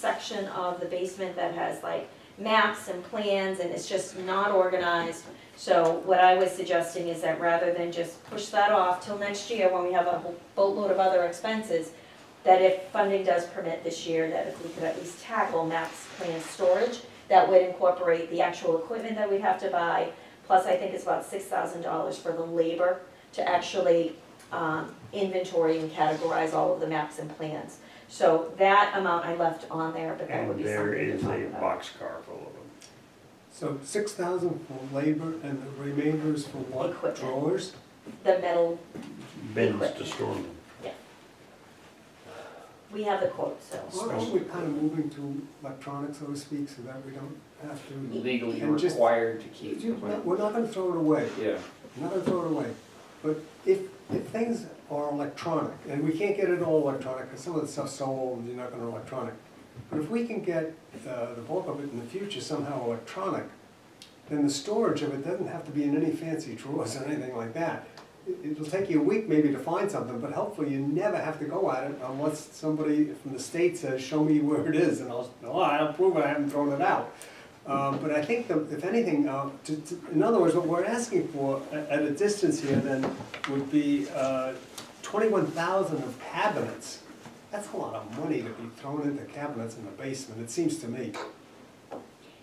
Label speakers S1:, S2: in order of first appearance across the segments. S1: section of the basement that has like maps and plans and it's just not organized. So what I was suggesting is that rather than just push that off till next year when we have a boatload of other expenses, that if funding does permit this year, that if we could at least tackle maps, plans, storage, that would incorporate the actual equipment that we'd have to buy, plus I think it's about six thousand dollars for the labor to actually um, inventory and categorize all of the maps and plans. So that amount I left on there, but that would
S2: And
S1: be
S2: there
S1: something to
S2: is a
S1: talk about.
S2: boxcar full of them.
S3: So six thousand for labor and the remainder is for what?
S1: Equipment.
S3: Drawers?
S1: The metal,
S2: Bins to
S1: Equipment.
S2: store them.
S1: we have the quote, so.
S3: Well, Aren't we kind of moving to electronic, so to speak, so that we don't have to?
S4: legally
S3: And just-
S4: required to keep.
S3: We're not gonna throw it away,
S4: Yeah.
S3: we're not gonna throw it away. But if, if things are electronic, and we can't get it all electronic, because some of the stuff's so old, you're not gonna electronic. But if we can get uh, the bulk of it in the future somehow electronic, then the storage of it doesn't have to be in any fancy drawers or anything like that. It- It'll take you a week maybe to find something, but hopefully you never have to go at it unless somebody from the state says, show me where it is, and I'll, oh, I'll prove it, I haven't thrown it out. Um, But I think that if anything, uh, to- to- in other words, what we're asking for a- at a distance here then would be uh, twenty-one thousand of cabinets. That's a lot of money to be thrown into cabinets in the basement, it seems to me.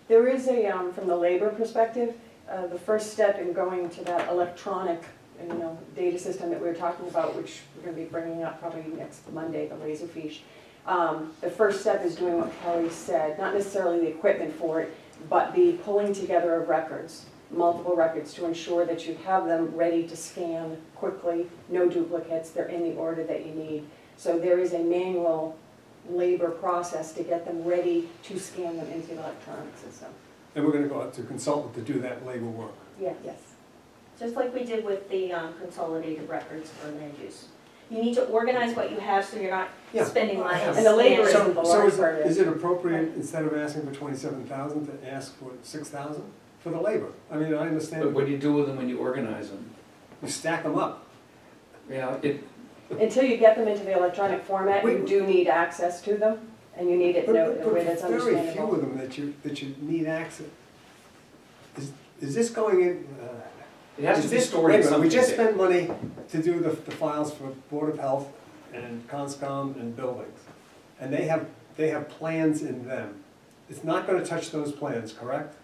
S5: There is a, um, from the labor perspective, uh, the first step in going to that electronic, you know, data system that we were talking about, which we're gonna be bringing up probably next Monday, the Laserfish. Um, the first step is doing what Kelly said, not necessarily the equipment for it, but the pulling together of records, multiple records to ensure that you have them ready to scan quickly, no duplicates, they're in the order that you need. So there is a manual labor process to get them ready to scan them into the electronic system.
S3: And we're gonna go out to a consultant to do that labor work.
S5: Yeah, yes.
S1: Just like we did with the um, consolidated records for land use. You need to organize what you have so you're not
S3: Yeah.
S1: spending money.
S5: And the labor is
S1: scanning.
S5: the
S3: So
S5: large
S3: is,
S5: part of
S3: is
S5: it.
S3: it appropriate, instead of asking for twenty-seven thousand, to ask for six thousand for the labor? I mean, I
S4: But
S3: understand,
S4: what do you do with them when you organize them?
S3: you stack them up.
S4: Yeah, it,
S5: Until you get them into the electronic format, you
S3: Wait.
S5: do need access to them, and you need it in a in a
S3: But-
S5: way that's
S3: but Very few of
S5: understandable.
S3: them that you, that you need access. Is, is this going in? uh,
S4: it has to
S3: is
S4: be
S3: this-
S4: stored
S3: wait
S4: in
S3: a minute,
S4: something.
S3: We just spent money to do the, the files for Board of Health and Conscom and buildings. And they have, they have plans in them. It's not gonna touch those plans, correct?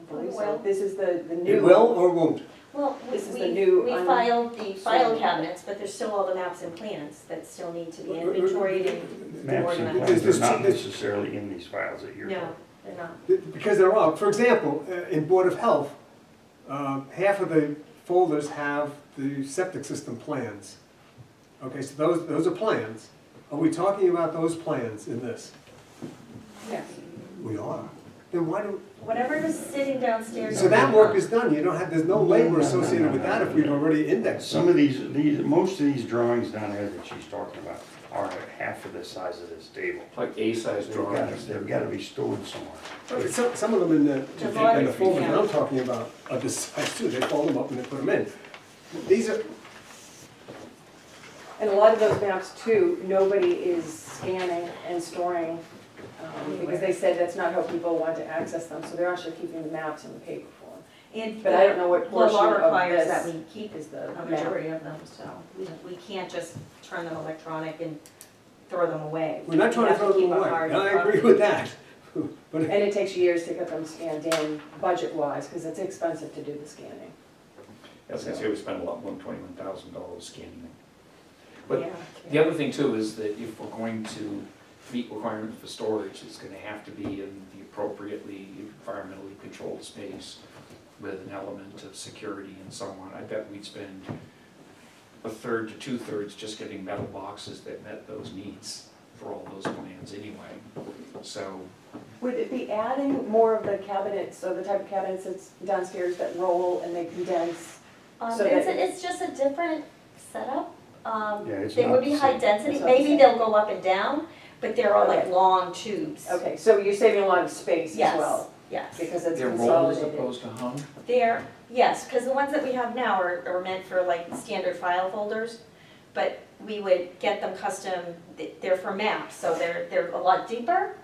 S5: I believe so. This is the, the new.
S3: It will or won't?
S1: Well, we,
S5: This is the
S1: we
S5: new,
S1: we
S5: um,
S1: filed the file
S5: sorry.
S1: cabinets, but there's still all the maps and plans that still need to be
S3: We're- we're-
S1: inventoried and,
S2: Maps and
S1: Organized.
S2: plans
S3: There's-
S2: are not
S3: there's-
S2: necessarily in these files that you're.
S1: no, they're not.
S3: Because there are, for example, uh, in Board of Health, uh, half of the folders have the septic system plans. Okay, so those, those are plans. Are we talking about those plans in this?
S5: Yes.
S3: We are. Then why do,
S1: Whatever was sitting downstairs.
S3: so that work is done, you don't have, there's no labor associated with that if we've already indexed
S2: Some of these, these, most of these drawings down there that she's talking about are half of the size of this table.
S4: Like A-size
S2: They've gotta,
S4: drawings.
S2: they've gotta be stored somewhere.
S3: But Some, some of them in the,
S1: The
S3: in
S1: volume,
S3: the folder that
S1: yeah.
S3: I'm talking about are this size too, they fold them up and they put them in. These are,
S5: And a lot of those maps too, nobody is scanning and storing, um, because they said that's not how people want to access them, so they're actually keeping the maps in the paper form.
S1: And
S5: But I don't know what
S1: the law
S5: portion of
S1: requires that
S5: this
S1: we keep
S5: is the
S1: a
S5: map.
S1: majority of them, so we, we can't just turn them electronic and throw them away.
S3: we're not trying
S1: We
S3: to
S1: have
S3: throw
S1: keep
S3: them
S1: a
S3: away,
S1: hard
S3: and I agree
S1: copy.
S3: with that. But
S5: And it takes years to get them scanned in budget-wise, because it's expensive to do the scanning.
S4: As I say, we spent a lot more than twenty-one thousand dollars scanning them.
S1: Yeah.
S4: But the other thing too is that if we're going to meet requirements for storage, it's gonna have to be in the appropriately environmentally controlled space with an element of security and so on. I bet we'd spend a third to two-thirds just getting metal boxes that met those needs for all those plans anyway. So,
S5: Would it be adding more of the cabinets, so the type of cabinets that's downstairs that roll and they condense?
S1: Um,
S5: So
S1: it's,
S5: that-
S1: it's just a different setup. Um,
S2: Yeah, it's
S1: they would
S2: not
S1: be
S2: the
S1: high
S2: same.
S1: density,
S5: It's not the
S1: maybe
S5: same.
S1: they'll go up and down, but they're all like
S5: Okay.
S1: long tubes.
S5: Okay, so you're saving a lot of space as
S1: Yes,
S5: well,
S1: yes.
S5: because it's
S4: they're rolled as
S5: consolidated.
S4: opposed to hung?
S1: They're, yes, because the ones that we have now are, are meant for like standard file folders, but we would get them custom, th- they're for maps, so they're, they're a lot deeper,